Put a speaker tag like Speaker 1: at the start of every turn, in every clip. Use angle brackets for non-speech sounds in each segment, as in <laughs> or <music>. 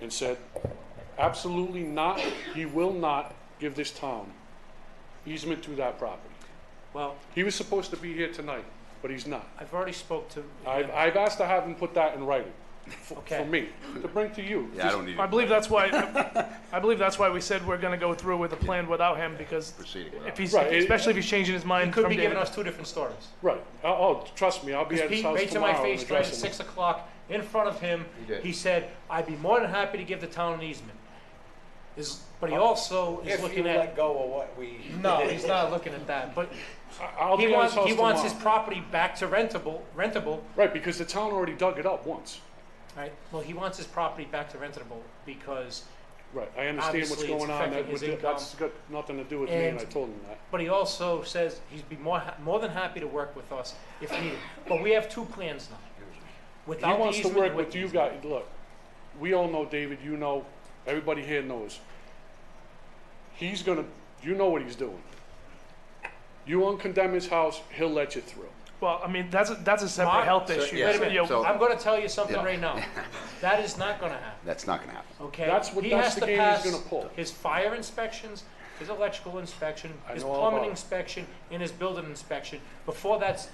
Speaker 1: and said, absolutely not, he will not give this town easement to that property.
Speaker 2: Well,
Speaker 1: He was supposed to be here tonight, but he's not.
Speaker 2: I've already spoke to.
Speaker 1: I've, I've asked to have him put that in writing, for,
Speaker 2: Okay.
Speaker 1: for me, to bring to you.
Speaker 3: Yeah, I don't need
Speaker 4: I
Speaker 3: it.
Speaker 4: believe
Speaker 1: <laughs>
Speaker 4: that's why, I believe that's why we said we're gonna go through with the plan without him, because
Speaker 3: Proceeding without
Speaker 4: if he's,
Speaker 1: Right, it-
Speaker 4: especially if he's changing his
Speaker 2: He
Speaker 4: mind
Speaker 2: could
Speaker 4: from
Speaker 2: be
Speaker 4: day
Speaker 2: giving
Speaker 4: to
Speaker 2: us two different stories.
Speaker 1: Right, oh, oh, trust me, I'll be at his
Speaker 2: Pete
Speaker 1: house
Speaker 2: made to my
Speaker 1: tomorrow and
Speaker 2: face right at
Speaker 1: addressing him.
Speaker 2: six o'clock in front of him.
Speaker 3: did.
Speaker 2: He said, I'd be more than happy to give the town an easement. Is, but he also is
Speaker 5: If you
Speaker 2: looking at,
Speaker 5: let go of what we.
Speaker 2: <laughs> no, he's not looking at that, but
Speaker 1: I- <laughs> I'll
Speaker 2: he
Speaker 1: be at his
Speaker 2: wants,
Speaker 1: house
Speaker 2: he wants his
Speaker 1: tomorrow.
Speaker 2: property back to rentable, rentable,
Speaker 1: Right, because the town already dug it up once.
Speaker 2: right? Well, he wants his property back to rentable because,
Speaker 1: Right, I understand what's
Speaker 2: Obviously, it's
Speaker 1: going on, that
Speaker 2: affecting
Speaker 1: would,
Speaker 2: his income.
Speaker 1: that's got nothing to do with me, and I
Speaker 2: And-
Speaker 1: told him that.
Speaker 2: but he also says he'd be more, ha- more than happy to work with us if needed. But we have two plans now.
Speaker 1: He
Speaker 2: Without the
Speaker 1: wants to
Speaker 2: easement.
Speaker 1: work
Speaker 2: and
Speaker 1: with you
Speaker 2: easement.
Speaker 1: guys, look, we all know David, you know, everybody here knows. He's gonna, you know what he's doing. You uncondemn his house, he'll let you through.
Speaker 4: day. Well, I mean, that's, a that's a separate
Speaker 2: Mark,
Speaker 4: health
Speaker 3: so-
Speaker 4: issue.
Speaker 3: yeah,
Speaker 2: Wait a
Speaker 4: so, you know,
Speaker 2: minute,
Speaker 3: so-
Speaker 2: I'm gonna tell you something
Speaker 3: Yeah.
Speaker 2: right now. That is not gonna happen,
Speaker 3: That's not gonna happen.
Speaker 2: okay?
Speaker 1: That's what-
Speaker 2: He
Speaker 1: that's
Speaker 2: has
Speaker 1: the
Speaker 2: to
Speaker 1: game he's
Speaker 2: pass
Speaker 1: gonna pull.
Speaker 2: His fire inspections, his electrical inspection,
Speaker 1: I
Speaker 2: his
Speaker 1: know all about
Speaker 2: plumbing
Speaker 1: it.
Speaker 2: inspection, and his building inspection, before that's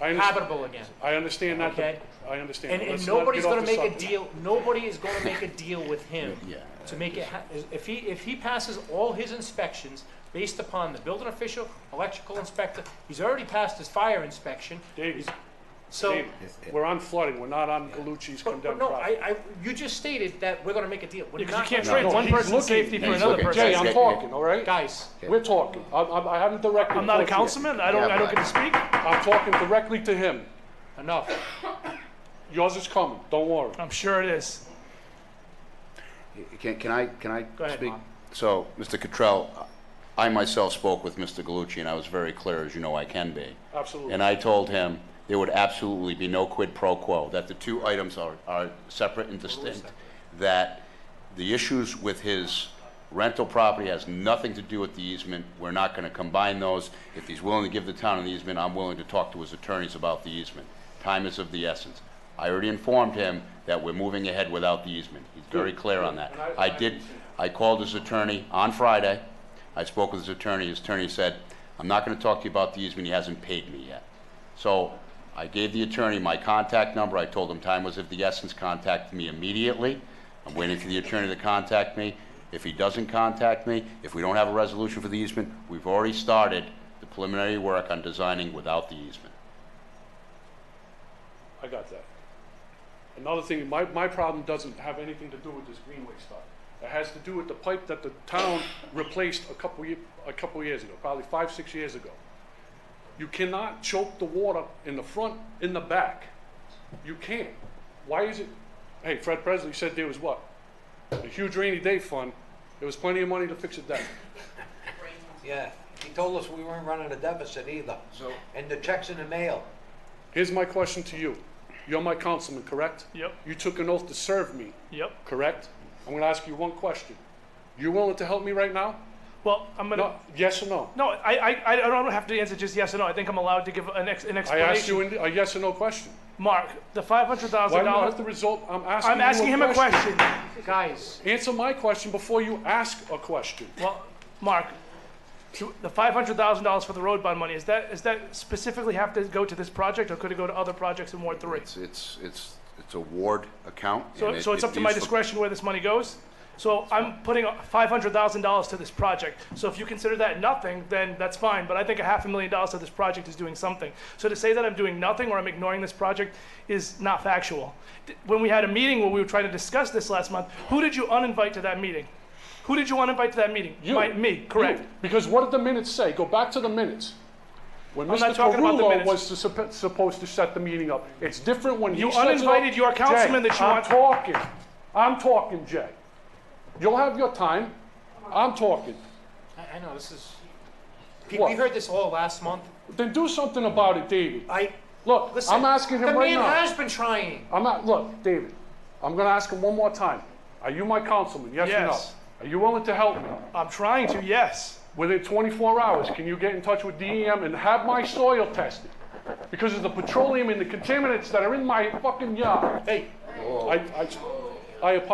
Speaker 1: I
Speaker 4: Ah,
Speaker 1: understand,
Speaker 2: habitable again.
Speaker 1: I understand that,
Speaker 2: Okay.
Speaker 1: I understand.
Speaker 2: And, and
Speaker 1: Let's not
Speaker 2: nobody's
Speaker 1: get off
Speaker 2: gonna
Speaker 1: the
Speaker 2: make a
Speaker 1: subject.
Speaker 2: deal, nobody is gonna make a deal with him
Speaker 3: Yeah.
Speaker 2: to make it, ha- if he, if he passes all his inspections based upon the building official, electrical inspector, he's already passed his fire inspection,
Speaker 1: David,
Speaker 2: so.
Speaker 1: David, we're on flooding, we're not on Galucci's
Speaker 2: But, but
Speaker 1: condemned
Speaker 2: no,
Speaker 1: property.
Speaker 2: I, I, you just stated that we're gonna make a deal. We're
Speaker 4: Because you
Speaker 2: not
Speaker 4: can't
Speaker 2: gonna-
Speaker 4: trade one
Speaker 1: He's
Speaker 4: person's
Speaker 1: looking.
Speaker 4: safety
Speaker 3: Yeah,
Speaker 4: for
Speaker 3: he's
Speaker 4: another
Speaker 3: looking.
Speaker 1: Jay,
Speaker 4: person.
Speaker 1: I'm
Speaker 3: Yeah.
Speaker 1: talking, all right?
Speaker 2: Guys,
Speaker 1: We're talking, I'm, I'm, I haven't directed.
Speaker 4: I'm not a
Speaker 1: towards you.
Speaker 4: councilman, I don't,
Speaker 3: Yeah,
Speaker 4: I don't
Speaker 3: but-
Speaker 4: get to speak.
Speaker 1: I'm talking directly to him.
Speaker 2: enough.
Speaker 1: Yours is coming, don't worry.
Speaker 4: I'm sure it is.
Speaker 3: Can, can I, can I
Speaker 2: ahead,
Speaker 3: speak?
Speaker 2: Ron.
Speaker 3: So, Mr. Cottrell, I myself spoke with Mr. Galucci, and I was very clear, as you know I can be.
Speaker 1: Absolutely.
Speaker 3: And I told him there would absolutely be no quid pro quo, that the two items are, are separate and distinct, that the issues with his rental property has nothing to do with the easement. We're not going to combine those. If he's willing to give the town an easement, I'm willing to talk to his attorneys about the easement. Time is of the essence. I already informed him that we're moving ahead without the easement. He's very clear on that.
Speaker 1: And I-
Speaker 3: I did, I called his attorney on Friday. I spoke with his attorney. His attorney said, I'm not going to talk to you about the easement. He hasn't paid me yet. So I gave the attorney my contact number. I told him time was of the essence. Contact me immediately. I'm waiting for the attorney to contact me. If he doesn't contact me, if we don't have a resolution for the easement, we've already started the preliminary work on designing without the easement.
Speaker 1: I got that. Another thing, my, my problem doesn't have anything to do with this greenway stuff. It has to do with the pipe that the town replaced a couple, ye- a couple years ago, probably five, six years ago. You cannot choke the water in the front, in the back. You can't. Why is it, hey, Fred Presley said there was what? A huge rainy day fund, there was plenty of money to fix it then.
Speaker 5: Yeah, he told us we weren't running a deficit either.
Speaker 3: So-
Speaker 5: And the check's in the mail.
Speaker 1: Here's my question to you. You're my councilman, correct?
Speaker 4: Yep,
Speaker 1: You took an oath to serve me.
Speaker 4: yep.
Speaker 1: correct? I'm gonna ask you one question. You willing to help me right now?
Speaker 4: Well, I'm gonna,
Speaker 1: No, yes or no?
Speaker 4: no, I, I, I don't have to answer just yes or no. I think I'm allowed to give an ex, an
Speaker 1: I asked
Speaker 4: explanation.
Speaker 1: you in- a yes or no question.
Speaker 4: Mark, the five hundred
Speaker 1: Why
Speaker 4: thousand
Speaker 1: do you
Speaker 4: dollars,
Speaker 1: have the result? I'm asking
Speaker 4: I'm asking
Speaker 1: you
Speaker 4: him a question.
Speaker 2: Guys,
Speaker 1: Answer my question before you ask a question.
Speaker 4: Well, Mark, to- the five hundred thousand dollars for the road bond money, is that, is that specifically have to go to this project or could it go to other projects in Ward three?
Speaker 3: It's, it's, it's, it's a ward account. and
Speaker 4: So,
Speaker 3: it-
Speaker 4: so it's
Speaker 3: it
Speaker 4: up to my
Speaker 3: used for-
Speaker 4: discretion where this money goes? So I'm putting five hundred thousand dollars to this project. So if you consider that nothing, then that's fine, but I think a half a million dollars to this project is doing something. So to say that I'm doing nothing or I'm ignoring this project is not factual. D- When we had a meeting where we were trying to discuss this last month, who did you uninvite to that meeting? Who did you uninvite to that meeting?
Speaker 1: You.
Speaker 4: My- Me, correct.
Speaker 1: You. Because what did the minutes say? Go back to the minutes. When
Speaker 4: I'm not
Speaker 1: Mr.
Speaker 4: talking about the
Speaker 1: Carullo
Speaker 4: minutes.
Speaker 1: was to supp- supposed to set the meeting up. It's different when he
Speaker 4: You
Speaker 1: sets it up.
Speaker 4: uninvited your councilman
Speaker 1: Jay,
Speaker 4: that you want-
Speaker 1: I'm talking. I'm talking, Jay. You'll have your time. I'm talking.
Speaker 2: I, I know, this is, Pete, we
Speaker 1: What?
Speaker 2: heard this all last month.
Speaker 1: Then do something about it, David.
Speaker 2: I,
Speaker 1: Look,
Speaker 2: listen.
Speaker 1: I'm asking him right
Speaker 2: The
Speaker 1: now.
Speaker 2: man has been trying.
Speaker 1: I'm not. Look, David, I'm going to ask him one more time. Are you my councilman? Yes,
Speaker 4: Yes.
Speaker 1: or no? Are you willing to help me?
Speaker 4: I'm trying to, yes.
Speaker 1: Within 24 hours, can you get in touch with DEM and have my soil tested? Because of the petroleum and the contaminants that are in my fucking yard.
Speaker 2: Hey,
Speaker 1: I, I, I apologize.